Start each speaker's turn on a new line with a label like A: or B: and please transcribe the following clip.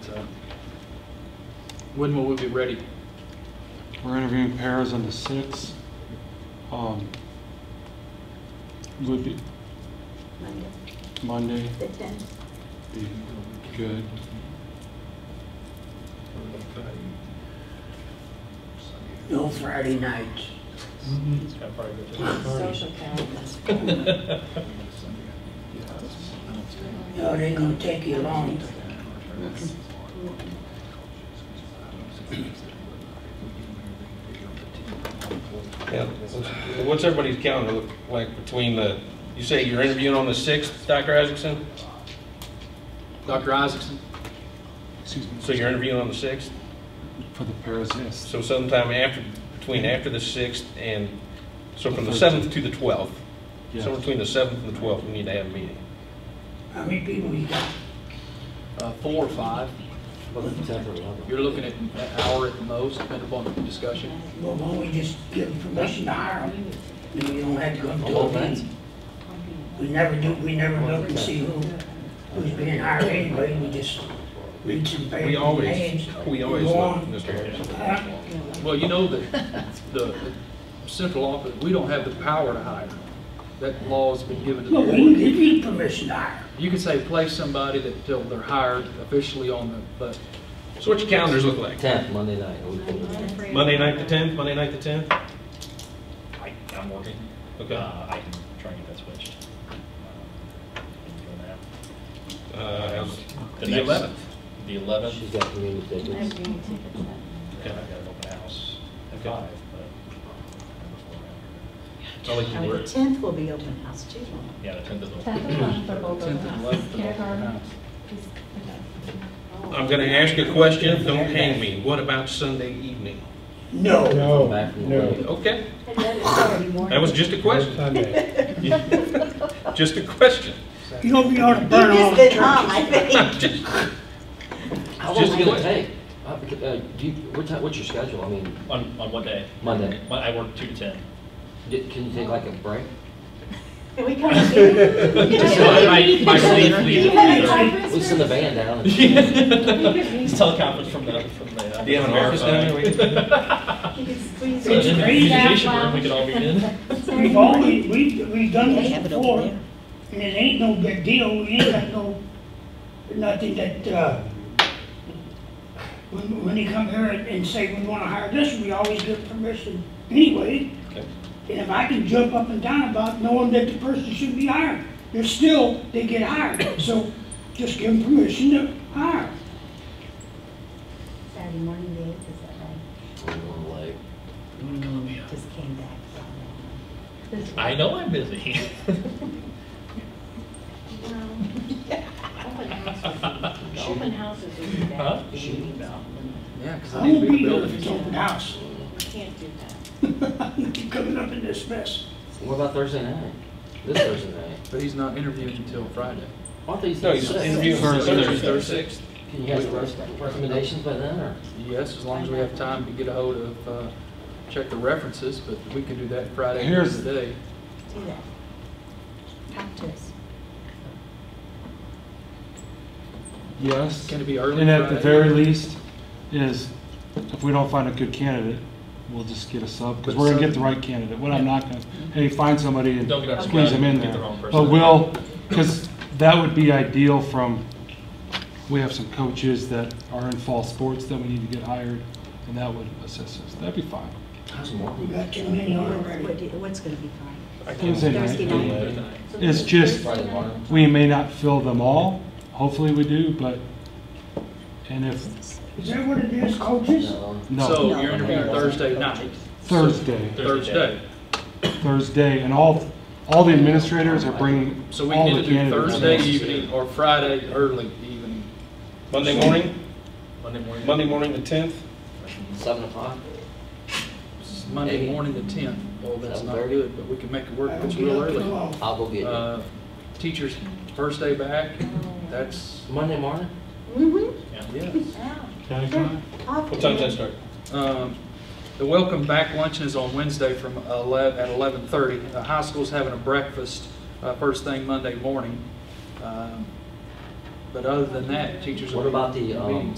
A: So uh, When will we be ready?
B: We're interviewing pairs on the sixth. Um, would be
C: Monday,
B: Monday
C: the tenth.
B: be good.
D: No Friday nights.
A: That's probably good to-
C: Social calendars.
D: No, it ain't gonna take you long.
E: Yeah, what's- what's everybody's calendar look like between the, you say you're interviewing on the 6th, Dr. Isaacson?
A: Dr. Isaacson?
B: Excuse me.
E: So you're interviewing on the 6th?
B: For the pairs, yes.
E: So sometime after, between after the 6th and, so from the
B: The
E: 7th to the 12th?
B: Yes.
E: Somewhere between the 7th and the 12th, we need to have a meeting.
D: How many people you got?
A: Uh, Four or five? You're looking at an hour at the most, depending upon the discussion.
D: Well, why don't we just give them permission to hire them? Then you don't have to go to a meeting. We never do, we never look and see who, who's being hired anyway, we just read some papers.
E: We always,
D: names,
E: we always
D: go
E: look,
D: on.
E: Mr. Harris.
D: Huh?
A: Well, you know that the central office, we don't have the power to hire. That law's been given to the
D: Well, we can
A: board.
D: give you permission to hire.
A: You can say place somebody that, till they're hired officially on the, but
E: So what's your calendars look like?
F: Tenth, Monday night. we pulled it.
E: Monday night the 10th, Monday night the 10th?
G: I, I'm working.
E: Okay.
G: Uh, I can try and get that switched. Um, can do that.
E: Uh, how's The
G: next-
E: 11th?
G: The eleventh,
F: She's got community tickets.
C: I've been tickets.
G: okay, I've got an open house at
E: Okay.
G: five, but.
E: I like your
C: And the
E: word.
C: tenth will be open house too.
G: Yeah, the tenth is open.
H: Tenth and eleventh are both
A: 10th
H: open
A: and
H: houses.
A: 11th.
H: Kindergarten is,
E: I'm going to ask you a question, don't hang me. What about Sunday evening?
D: Oh, No.
F: Come back from the break.
E: Okay,
C: And then it's Saturday morning.
E: that was just a question. Just a question.
D: You don't be on to burn
C: You
D: all
C: just been
D: the
C: on,
D: churches.
C: I think.
E: Just-
F: How long
E: Just
F: is it gonna
E: what?
F: take? Uh, beca- uh, do you- what ti- What's your schedule? I mean,
G: On, on what day?
F: Monday.
G: Mon- I work two to ten.
F: di- can you take like a break?
C: Can we come and see it?
G: Just my, my sleep leaves
C: You
G: at
C: have a
G: 3:30.
F: We send the band down. and-
G: It's teleconference from the, from the. uh,
E: Do you have an office down there? we can-
C: You can squeeze
G: So in
C: it.
G: the
D: Breathe out
G: beautification room, we can all be in.
D: We've always, we've, we've done this before, and it ain't no big deal, we ain't got no, nothing that, uh, when, when they come here and and say we wanna hire this, we always give permission anyway.
E: Okay.
D: And if I can jump up and down about knowing that the person should be hired, they're still, they get hired, so just give them permission to hire.
C: Saturday morning, the eighth, is that
F: We're going late.
C: right? Just came back.
H: this
G: I know I'm busy.
C: Open houses are
G: Huh?
C: bad.
F: She-
A: yeah, because
D: I
A: I need
D: won't
A: to be in
D: be
A: the
D: there
A: building.
D: if it's open house.
C: Can't do that.
D: Keep coming up in this mess.
F: What about Thursday night? This Thursday night?
A: But he's not interviewing until Friday.
F: I thought
E: No,
F: you said
E: he's
F: six.
E: interviewing Thursday,
B: Thursday.
E: Thursday, sixth.
F: Can you have some res- recommendations by then, or?
A: Yes, as long as we have time to get a hold of, uh, check the references, but we can do that Friday during
B: Here's-
A: the day.
C: Do that. Talk to us.
B: Yes.
A: Can it be early
B: And at the
A: Friday?
B: very least is if we don't find a good candidate, we'll just get a sub because
A: But
B: we're gonna
A: sub-
B: get the right candidate. What I'm not gonna, hey, find somebody and
G: Don't get upset
B: squeeze them in
G: if you
B: there.
G: get the wrong
B: But
G: person.
B: we'll, because that would be ideal from, we have some coaches that are in fall sports that we need to get hired and that would assist us. That'd be fine.
F: How's Mark?
D: We got too many on already.
C: What do you- What's gonna be fine?
E: I can't-
B: Thursday
C: Thursday
B: night.
C: night.
B: It's just,
F: Friday morning.
B: we may not fill them all. Hopefully we do, but, and if,
D: Is that what it is, coaches?
F: No. um,
B: no,
A: So you're interviewing Thursday night,
B: Thursday.
A: Thursday.
B: Thursday, and all, all the administrators are bringing
A: So we
B: all
A: can
B: the
A: either do
B: candidates.
A: Thursday evening or Friday early evening.
E: Monday morning,
G: Monday morning.
E: Monday morning, the tenth.
F: Seven o'clock?
A: Monday
F: Eight.
A: morning the tenth. Well, that's not
F: 7:30.
A: good, but we can make it work.
D: I
A: if
D: don't
A: It's
D: get
A: real
D: up till
A: early.
D: all.
F: I'll go get you.
A: Uh, teachers, first day back, that's,
F: Monday morning?
C: Mm-hmm.
A: yeah.
E: What time does that start?
A: Um, The welcome back luncheon is on Wednesday from 11, at 11:30. The high school's having a breakfast uh, first thing Monday morning. Um, But other than that, teachers will
F: What
A: be
F: about the, um,
A: meetings.